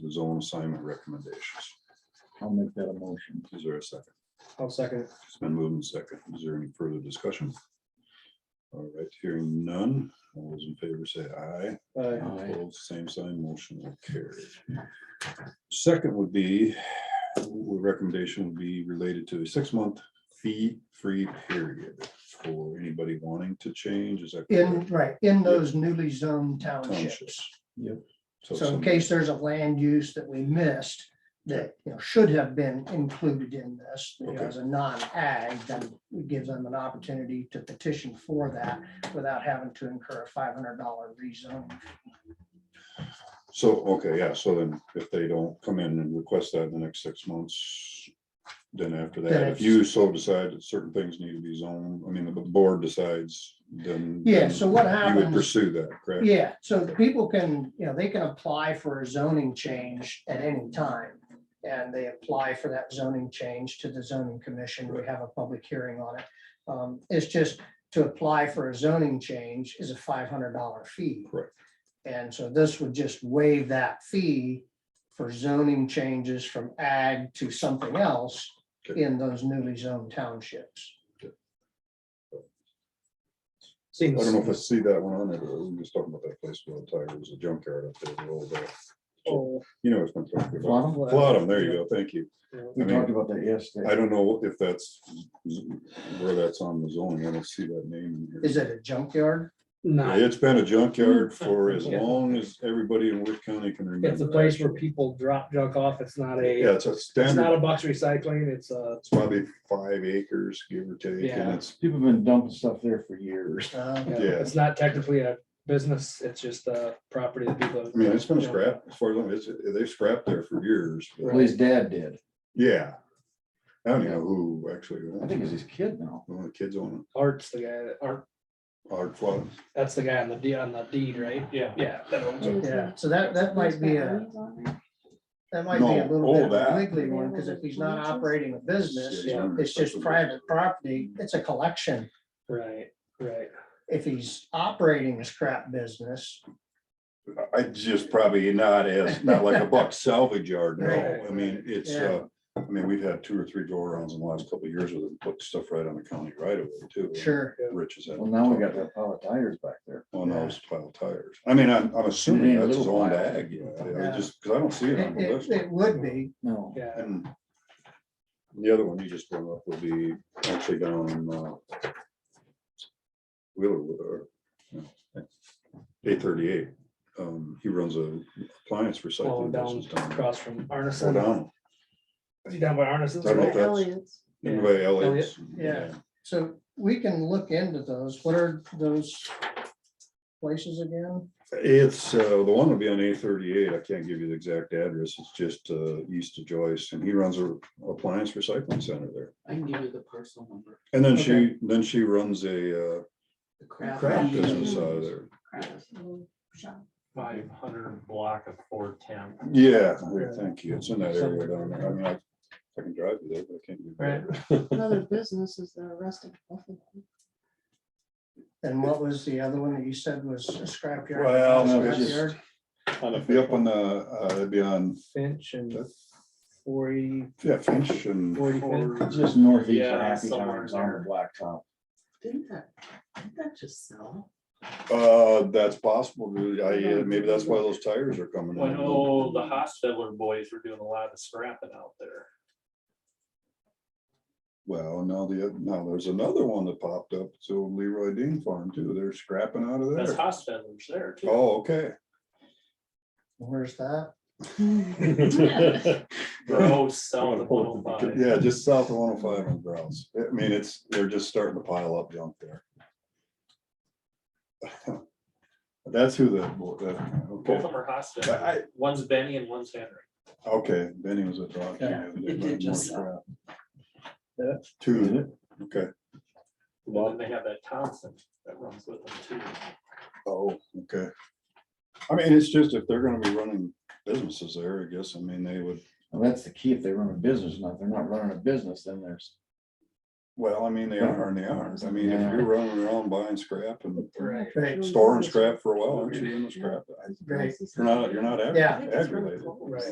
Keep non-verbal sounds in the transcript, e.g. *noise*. the zone assignment recommendations. I'll make that a motion. Is there a second? I'll second it. It's been moved and second. Is there any further discussion? All right, hearing none. All those in favor say aye. Uh, Aye. Opposed, Same sign, motion will carry. Second would be, w- recommendation would be related to a six-month fee-free period for anybody wanting to change, is that? In, right, in those newly zoned townships. Townships. Yep. So So in some- case there's a land use that we missed, that, you know, should have been included in this, you know, Okay. as a non-ag, then it gives them an opportunity to petition for that without having to incur a five hundred dollar rezone. So, okay, yeah, so then if they don't come in and request that in the next six months, then after Then that, if it's- you so decide that certain things need to be zoned, I mean, the board decides, then. Yeah, then so what You would happens- pursue that, correct? Yeah, so the people can, you know, they can apply for a zoning change at any time. And they apply for that zoning change to the zoning commission. We have a public hearing on it. Um, It's just to apply for a zoning change is a five hundred dollar fee. Correct. And so this would just waive that fee for zoning changes from ag to something else Okay. in those newly zoned townships. I don't know if I Seems, see that one on there, but we were just talking about that place with the tiger, it was a junkyard up there, the old, uh, oh, you know, it's been talking about. Well, Flottam, there you go, thank you. no. We I mean, talked about that I yesterday. don't know if that's, where that's on the zoning, I don't see that name. in here. Is it a Yeah, junkyard? No, It's been a junkyard for as Yeah. long as everybody in Wood County can remember. it's a place where actually. people drop junk off. It's not Yeah, a, it's a it's not standard, a box recycling. It's a, it's probably five acres, give or take, and Yeah. it's, People have been dumping stuff there for years. Uh, yeah, Yeah. it's not technically a business. It's just a property that people. I mean, it's been scrapped, as far as, I'm- it's, they've scrapped there for years, but At least dad did. yeah. I don't know who actually, I think it's his kid now. one of the kids on Art's the guy that, Art, it, Art Flood. that's the guy on the deed, on the deed, right? Yeah. Yeah. that owns it. Yeah, so that, that might be a, that might be No, a little all bit of a that. wiggly one, because if he's not operating a business, Yeah. it's just private property, it's a collection. Right, right. If he's operating a scrap business, I just probably not as, not like a *laughs* buck salvage yard, no, Right. I mean, it's, uh, I mean, we've had two or three go arounds in the last couple of years with them, put stuff right on the county right away too. sure, Rich is. Well, now we got that pile of tires back there. On those pile tires. I mean, I'm, I'm assuming ain't a that's little zoned pile. ag, yeah, I- I Yeah. just, because I don't see it, it on the it, list. it would be, No. Yeah. And The other one you just brought up will be actually down in, uh, Wheeler, eight thirty-eight. Um, he runs a appliance Well, recycling down business down. across from Well, Arneson. down, Is he down by Arneson's? I don't know if that's- Yeah. anyway, Elliot's. Yeah. so we can look into those, what are those places again? It's, uh, the one will be on A thirty-eight. I can't give you the exact address. It's just, uh, east of Joyce and he runs a appliance recycling center there. I can give you the parcel number. And then she, then she runs a, uh, The craft. craft business out of there. Five hundred block of four ten. Yeah, I thank you. It's in that area down there. I mean, I, I can drive you there, but I can't. do that. Another business is the rest of. And what was the other one that you said was a scrapyard? Well, no, it's Scrapyard? It'd Be up on the, uh, it'd be on, Finch and forty, yeah, Finch and. forty Finch. It's Just northeast of Yeah, Happy somewhere Times on the blacktop. Didn't that, didn't that just sell? Uh, that's possible. dude. I, uh, maybe that's why those tires are coming When, in. oh, the Hostetler boys were doing a lot of scrapping out there. Well, now the, now there's another one that popped up. It's old Leroy Dean Farm too. They're scrapping out of That's there. Hostetler's there too. Oh, okay. Where's that? Gross, south of one oh five. Yeah, just south of one oh five on Browns. I mean, it's, they're just starting to pile up junk there. *laughs* That's who the, the- Both okay, of them are I- Hostetler. One's Benny and one's Henry. okay, Benny was a dog. Yeah, it did just Two, Yeah. okay, And then they have that Thompson that runs with them too. oh, okay. I mean, it's just if they're gonna be running businesses there, I guess, I mean, they would, Well, that's the key. If they run a business, now if they're not running a business, then there's Well, I mean, they are and they aren't. I mean, if Yeah. you're running around buying scrap and Right. Right. storing scrap for a while, aren't you in the scrap? Right. You're not, you're not ag- Yeah. I think it's really ag-related. close. Right.